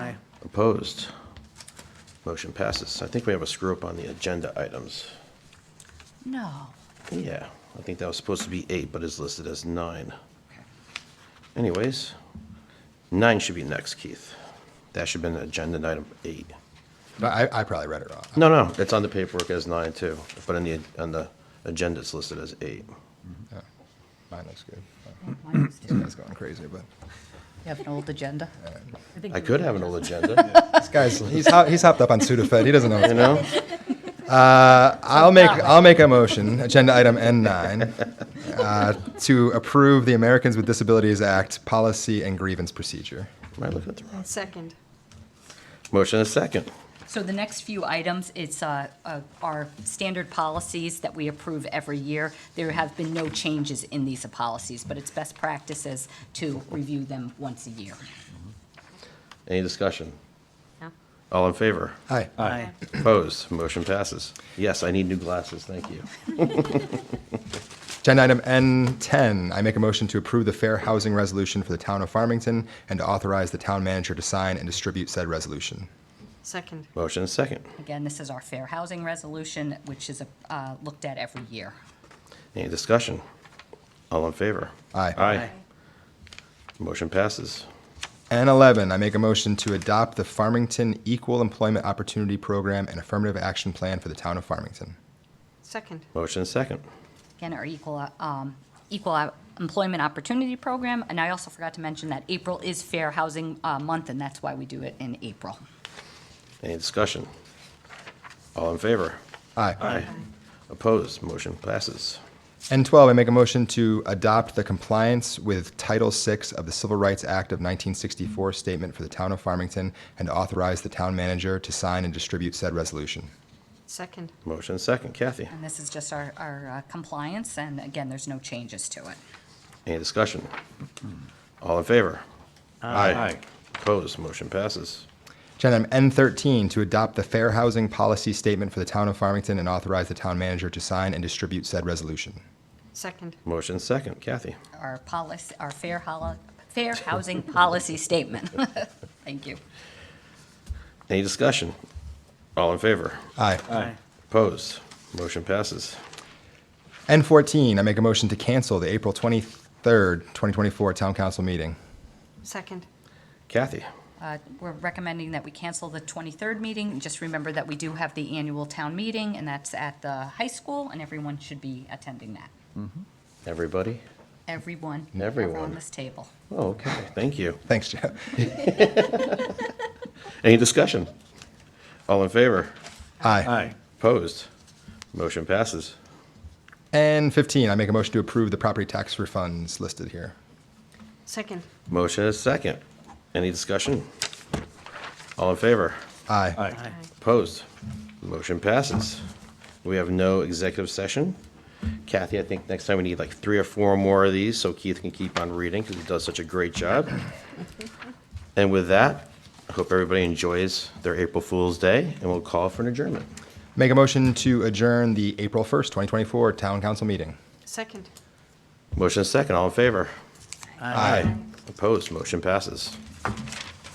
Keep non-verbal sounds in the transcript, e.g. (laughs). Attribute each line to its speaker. Speaker 1: Opposed? Motion passes. I think we have a screw-up on the agenda items.
Speaker 2: No.
Speaker 1: Yeah, I think that was supposed to be eight, but is listed as nine. Anyways, nine should be next, Keith. That should have been agenda item eight.
Speaker 3: But I, I probably read it wrong.
Speaker 1: No, no, it's on the paperwork as nine too, but on the, on the agenda, it's listed as eight.
Speaker 3: Yeah. Mine looks good.
Speaker 2: Mine was
Speaker 3: This
Speaker 2: too.
Speaker 3: guy's going crazy, but
Speaker 2: You have an old agenda?
Speaker 1: I could have an old agenda,
Speaker 3: this guy's he's hop, he's hopped up on Sudafed. He doesn't know.
Speaker 1: you know?
Speaker 3: Uh, I'll make I'll make a motion, agenda item N9, uh, to approve the Americans with Disabilities Act policy and grievance procedure.
Speaker 1: Am I looking at the wrong?
Speaker 4: Second.
Speaker 1: Motion and a second.
Speaker 2: So the next few items, it's uh, uh, our standard policies that we approve every year. There have been no changes in these policies, but it's best practices to review them once a year.
Speaker 1: Any discussion?
Speaker 4: No.
Speaker 1: All in favor?
Speaker 3: Hi.
Speaker 5: Aye.
Speaker 1: Opposed? Motion passes. Yes, I need new glasses, thank you.
Speaker 3: Agenda item N10, I make a motion to approve the fair housing resolution for the town of Farmington and to authorize the town manager to sign and distribute said resolution.
Speaker 4: Second.
Speaker 1: Motion and second.
Speaker 2: Again, this is our fair housing resolution, which is uh, looked at every year.
Speaker 1: Any discussion? All in favor?
Speaker 3: Aye.
Speaker 1: Aye. Motion passes.
Speaker 3: N11, I make a motion to adopt the Farmington Equal Employment Opportunity Program and Affirmative Action Plan for the town of Farmington.
Speaker 4: Second.
Speaker 1: Motion and second.
Speaker 2: Again, our equal, um, equal employment opportunity program. And I also forgot to mention that April is Fair Housing uh, Month, and that's why we do it in April.
Speaker 1: Any discussion? All in favor?
Speaker 3: Aye.
Speaker 1: Opposed? Motion passes.
Speaker 3: N12, I make a motion to adopt the compliance with Title VI of the Civil Rights Act of 1964 statement for the town of Farmington and to authorize the town manager to sign and distribute said resolution.
Speaker 4: Second.
Speaker 1: Motion and second. Kathy,
Speaker 2: And this is just our, our uh, compliance, and again, there's no changes to it.
Speaker 1: any discussion? All in favor?
Speaker 5: Aye.
Speaker 1: Opposed? Motion passes.
Speaker 3: Agenda item N13, to adopt the fair housing policy statement for the town of Farmington and authorize the town manager to sign and distribute said resolution.
Speaker 4: Second.
Speaker 1: Motion and second. Kathy,
Speaker 2: Our policy, our fair holo, fair housing policy statement. (laughs) Thank you.
Speaker 1: any discussion? All in favor?
Speaker 3: Aye.
Speaker 5: Aye.
Speaker 1: Opposed? Motion passes.
Speaker 3: N14, I make a motion to cancel the April 23rd, 2024 town council meeting.
Speaker 4: Second.
Speaker 1: Kathy,
Speaker 2: Uh, We're recommending that we cancel the 23rd meeting. Just remember that we do have the annual town meeting, and that's at the high school, and everyone should be attending that.
Speaker 1: everybody?
Speaker 2: Everyone.
Speaker 1: Everyone.
Speaker 2: Around this table.
Speaker 1: Oh, okay, thank you.
Speaker 3: Thanks, Jeff.
Speaker 1: Any discussion? All in favor?
Speaker 3: Aye.
Speaker 5: Aye.
Speaker 1: Opposed? Motion passes.
Speaker 3: And 15, I make a motion to approve the property tax refunds listed here.
Speaker 4: Second.
Speaker 1: Motion is second. Any discussion? All in favor?
Speaker 3: Aye.
Speaker 5: Aye.
Speaker 1: Opposed? Motion passes. We have no executive session. Kathy, I think next time we need like three or four more of these so Keith can keep on reading because he does such a great job. And with that, I hope everybody enjoys their April Fool's Day and we'll call for an adjournment.
Speaker 3: Make a motion to adjourn the April 1st, 2024 town council meeting.
Speaker 4: Second.
Speaker 1: Motion is second. All in favor? Aye. Opposed? Motion passes.